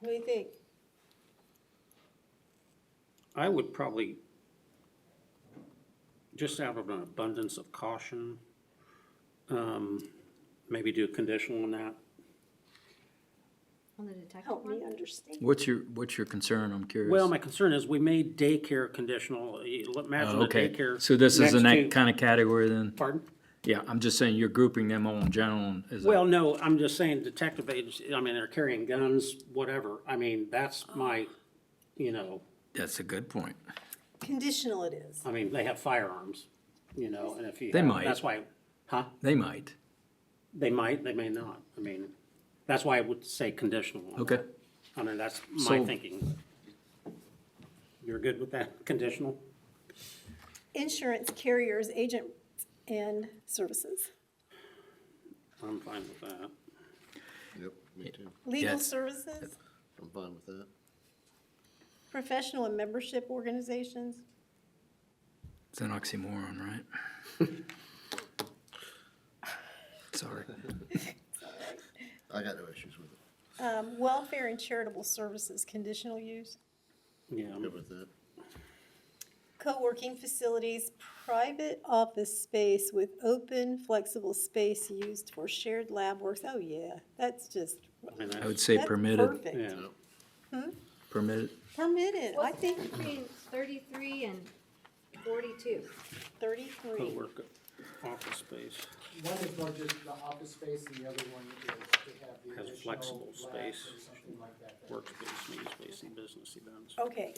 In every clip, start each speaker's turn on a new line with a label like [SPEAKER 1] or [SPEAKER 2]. [SPEAKER 1] What do you think?
[SPEAKER 2] I would probably, just out of an abundance of caution, um, maybe do conditional on that.
[SPEAKER 3] On the detective
[SPEAKER 1] Help me
[SPEAKER 3] one?
[SPEAKER 1] understand.
[SPEAKER 4] What's your, what's your concern? I'm curious.
[SPEAKER 2] Well, my concern is we made daycare conditional, You l- imagine
[SPEAKER 4] Oh,
[SPEAKER 2] the
[SPEAKER 4] Okay,
[SPEAKER 2] daycare.
[SPEAKER 4] so this is in
[SPEAKER 2] next
[SPEAKER 4] that
[SPEAKER 2] to-
[SPEAKER 4] kind of category then?
[SPEAKER 2] Pardon?
[SPEAKER 4] Yeah, I'm just saying you're grouping them all in general as
[SPEAKER 2] Well,
[SPEAKER 4] a,
[SPEAKER 2] no, I'm just saying detective agency, I mean, they're carrying guns, whatever. I mean, that's my, you know,
[SPEAKER 4] that's a good point.
[SPEAKER 1] Conditional it is.
[SPEAKER 2] I mean, they have firearms, you know, and if you.
[SPEAKER 4] They
[SPEAKER 2] have-
[SPEAKER 4] might.
[SPEAKER 2] That's why, huh?
[SPEAKER 4] They might.
[SPEAKER 2] They might, they may not. I mean, that's why I would say conditional. on
[SPEAKER 4] Okay.
[SPEAKER 2] that. I mean, that's my
[SPEAKER 4] So-
[SPEAKER 2] thinking. You're good with that, conditional?
[SPEAKER 1] Insurance carriers, agents, and services.
[SPEAKER 2] I'm fine with that.
[SPEAKER 5] Yep, me too.
[SPEAKER 1] Legal
[SPEAKER 4] Yes.
[SPEAKER 1] services,
[SPEAKER 5] I'm fine with that.
[SPEAKER 1] professional and membership organizations.
[SPEAKER 4] It's an oxymoron, right? Sorry.
[SPEAKER 5] I got no issues with it.
[SPEAKER 1] Um, welfare and charitable services, conditional use.
[SPEAKER 2] Yeah, I'm-
[SPEAKER 5] Good with that.
[SPEAKER 1] Co-working facilities, private office space with open, flexible space used for shared lab works. Oh, yeah, that's just,
[SPEAKER 2] I mean,
[SPEAKER 4] I would
[SPEAKER 2] that's,
[SPEAKER 4] say
[SPEAKER 1] that's
[SPEAKER 4] permitted,
[SPEAKER 1] perfect.
[SPEAKER 2] yeah.
[SPEAKER 4] permitted.
[SPEAKER 1] Permitted, I
[SPEAKER 3] What's
[SPEAKER 1] think
[SPEAKER 3] between thirty-three and forty-two?
[SPEAKER 1] thirty-three.
[SPEAKER 2] Co-work, office space,
[SPEAKER 6] One is more just the office space, and the other one is to have the
[SPEAKER 2] Has
[SPEAKER 6] additional.
[SPEAKER 2] flexible
[SPEAKER 6] lab
[SPEAKER 2] space.
[SPEAKER 6] Or something like that.
[SPEAKER 2] workspace, meeting space, and business events.
[SPEAKER 1] Okay,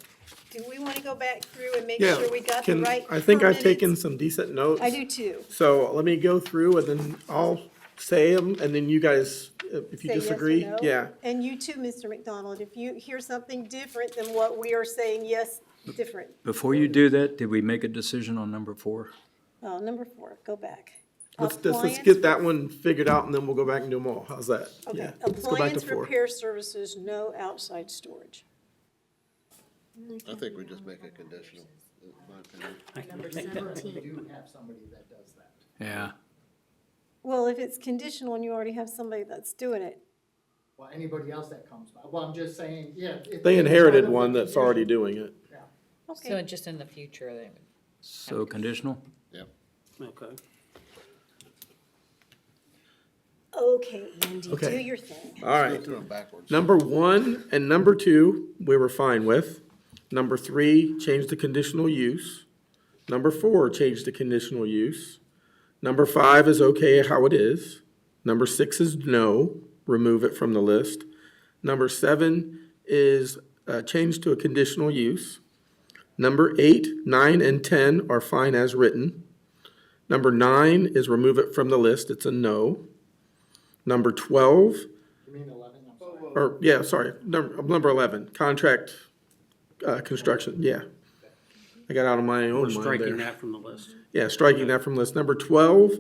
[SPEAKER 1] do we want to go back through and make
[SPEAKER 7] Yeah,
[SPEAKER 1] sure we got the
[SPEAKER 7] can-
[SPEAKER 1] right?
[SPEAKER 7] I think I've
[SPEAKER 1] permitted-
[SPEAKER 7] taken some decent notes.
[SPEAKER 1] I do too.
[SPEAKER 7] So let me go through and then I'll say them and then you guys, uh, if you
[SPEAKER 1] Say yes or
[SPEAKER 7] disagree,
[SPEAKER 1] no.
[SPEAKER 7] yeah.
[SPEAKER 1] And you too, Mr. McDonald, if you hear something different than what we are saying, yes, different.
[SPEAKER 4] Before you do that, did we make a decision on number four?
[SPEAKER 1] Oh, number four, go back.
[SPEAKER 7] Let's, just- let's
[SPEAKER 1] Appliance-
[SPEAKER 7] get that one figured out and then we'll go back and do them all. How's that?
[SPEAKER 1] Okay,
[SPEAKER 7] Yeah, let's go back to
[SPEAKER 1] appliance
[SPEAKER 7] four.
[SPEAKER 1] repair services, no outside storage.
[SPEAKER 5] I think we just make it conditional, in my opinion.
[SPEAKER 3] Number
[SPEAKER 6] We
[SPEAKER 3] seventeen.
[SPEAKER 6] do have somebody that does that.
[SPEAKER 4] Yeah,
[SPEAKER 1] Well, if it's conditional and you already have somebody that's doing it,
[SPEAKER 6] Well, anybody else that comes by, well, I'm just saying, yeah. if-
[SPEAKER 7] They
[SPEAKER 6] if it's
[SPEAKER 7] inherited
[SPEAKER 6] part of
[SPEAKER 7] one
[SPEAKER 6] the
[SPEAKER 7] that's already
[SPEAKER 6] condition-
[SPEAKER 7] doing it.
[SPEAKER 6] Yeah.
[SPEAKER 8] So
[SPEAKER 1] okay,
[SPEAKER 8] just in the future, they would.
[SPEAKER 4] so conditional?
[SPEAKER 5] Yep.
[SPEAKER 2] Okay.
[SPEAKER 1] okay, Andy, do
[SPEAKER 7] Okay.
[SPEAKER 1] your thing.
[SPEAKER 5] Go
[SPEAKER 7] All right.
[SPEAKER 5] through them backwards.
[SPEAKER 7] Number one and number two, we were fine with. Number three, change the conditional use. Number four, change the conditional use. Number five is okay how it is. Number six is no, remove it from the list. Number seven is uh, change to a conditional use. Number eight, nine, and ten are fine as written. Number nine is remove it from the list, it's a no. Number twelve
[SPEAKER 6] You mean eleven, I'm sorry.
[SPEAKER 7] or, yeah, sorry, number, number eleven, contract, uh, construction, yeah. I got out of my
[SPEAKER 2] We're
[SPEAKER 7] own mind
[SPEAKER 2] striking
[SPEAKER 7] there.
[SPEAKER 2] that from the list.
[SPEAKER 7] Yeah, striking that from list. Number twelve,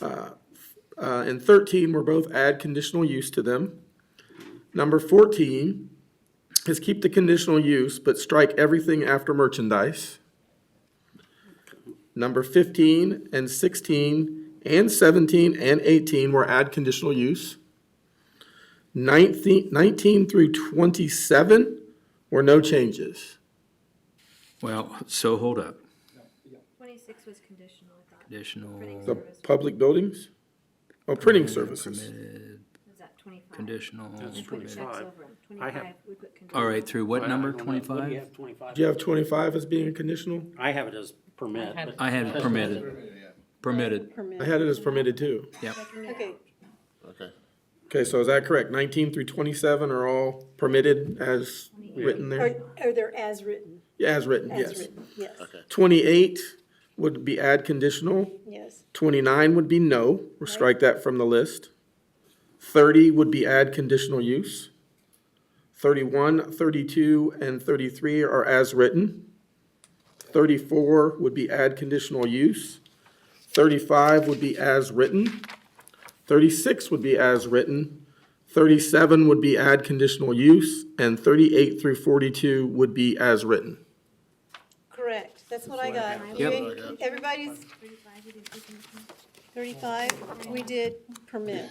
[SPEAKER 7] uh, uh, and thirteen were both add conditional use to them. Number fourteen is keep the conditional use, but strike everything after merchandise. Number fifteen and sixteen and seventeen and eighteen were add conditional use. 19, 19 through 27 were no changes.
[SPEAKER 4] Well, so hold up,
[SPEAKER 3] Twenty-six was conditional, I thought.
[SPEAKER 4] conditional,
[SPEAKER 7] The public buildings? Oh, printing services.
[SPEAKER 4] permitted,
[SPEAKER 3] Was that twenty-five?
[SPEAKER 4] conditional.
[SPEAKER 2] That's
[SPEAKER 3] We put checks
[SPEAKER 2] 25.
[SPEAKER 3] over 'em.
[SPEAKER 2] I have-
[SPEAKER 3] Twenty-five, we put conditional.
[SPEAKER 4] All right, through
[SPEAKER 2] I-
[SPEAKER 4] what
[SPEAKER 2] I
[SPEAKER 4] number,
[SPEAKER 2] don't know. What do you
[SPEAKER 4] twenty-five?
[SPEAKER 2] have, twenty-five?
[SPEAKER 7] Do you have 25 as being conditional?
[SPEAKER 2] I have it as permit,
[SPEAKER 8] I had-
[SPEAKER 2] but
[SPEAKER 4] I had permitted, permitted,
[SPEAKER 7] I
[SPEAKER 1] Permit.
[SPEAKER 7] had it as permitted too.
[SPEAKER 4] yep.
[SPEAKER 1] Okay,
[SPEAKER 5] Okay.
[SPEAKER 7] Okay, so is that correct? 19 through 27 are all permitted as written
[SPEAKER 1] are,
[SPEAKER 7] there?
[SPEAKER 1] are there as written?
[SPEAKER 7] Yeah, as written,
[SPEAKER 1] As
[SPEAKER 7] yes.
[SPEAKER 1] written, yes,
[SPEAKER 5] Okay.
[SPEAKER 7] 28 would be add conditional.
[SPEAKER 1] yes.
[SPEAKER 7] 29 would be no, or strike that from the list. 30 would be add conditional use. 31, 32, and 33 are as written. 34 would be add conditional use. 35 would be as written. 36 would be as written. 37 would be add conditional use, and 38 through 42 would be as written.
[SPEAKER 1] Correct, that's what I got.
[SPEAKER 5] Yep.
[SPEAKER 1] You- Everybody's
[SPEAKER 3] Thirty-five, we didn't do conditional.
[SPEAKER 1] thirty-five, we did permit.